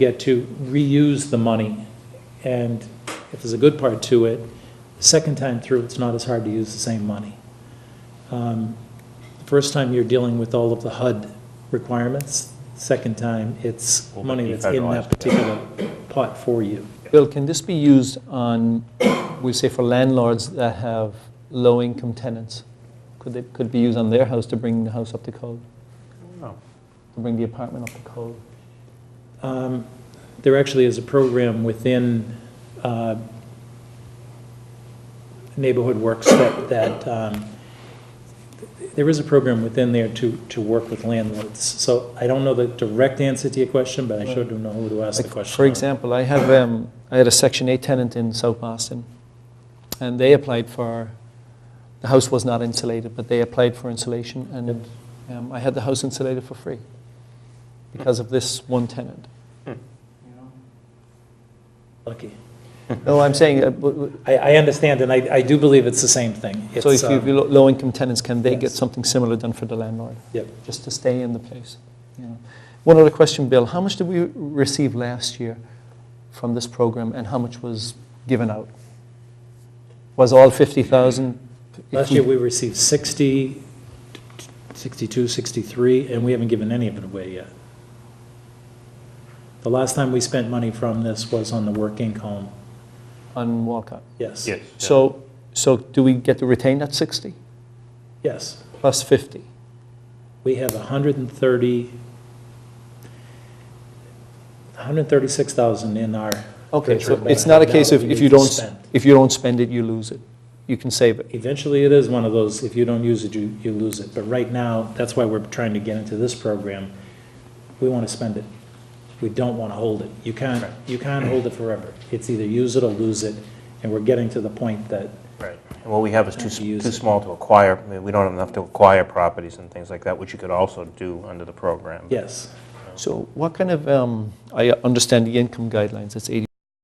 get to reuse the money. And if there's a good part to it, the second time through, it's not as hard to use the same money. Um, the First time, you're dealing with all of the HUD requirements. Second time, it's Will money be that's in that federalized. particular pot for you. Bill, can this be used on, we say for landlords that have low-income tenants? Could they, could it be used on their house to bring the house up to code, Oh, to bring the apartment up to code? Um, There actually is a program within uh, Neighborhood Works that, that, um, there is a program within there to, to work with landlords. So I don't know the direct answer to your question, but I sure do know who to ask the Like, question. For of. example, I have, um, I had a Section 8 tenant in South Boston, and they applied for, the house was not insulated, but they applied for insulation, and um, I had the house insulated for free because of this one tenant. Lucky. No, I'm saying, uh, w- w- I, I understand, and I, I do believe it's the same thing. so if It's, you, um, you lo- low-income tenants, can they get yes. something similar done for the landlord? Yep. Just to stay in the place, you know. One other question, Bill, how much did we receive last year from this program, and how much was given out? Was all 50,000? Last year, we received 60, 62, 63, and we haven't given any of it away yet. The last time we spent money from this was on the working home, On Walcott. yes. yes. yeah. So, so do we get to retain that 60 Yes. plus 50? We have 130, 136,000 in our, Okay, so Richard, it's not a but case now of we if need you to don't, spend. if you don't spend it, you lose it. You can save it. eventually it is one of those, if you don't use it, you, you lose it. But right now, that's why we're trying to get into this program. We want to spend it. We don't want to hold it. You can't, you can't hold it forever. It's either use it or lose it, and we're getting to the point that Right. And what we have is too, And s- to use too it. small to acquire, I mean, we don't have enough to acquire properties and things like that, which you could also do under the program. Yes. So what kind of, um, I understand the income guidelines, it's 80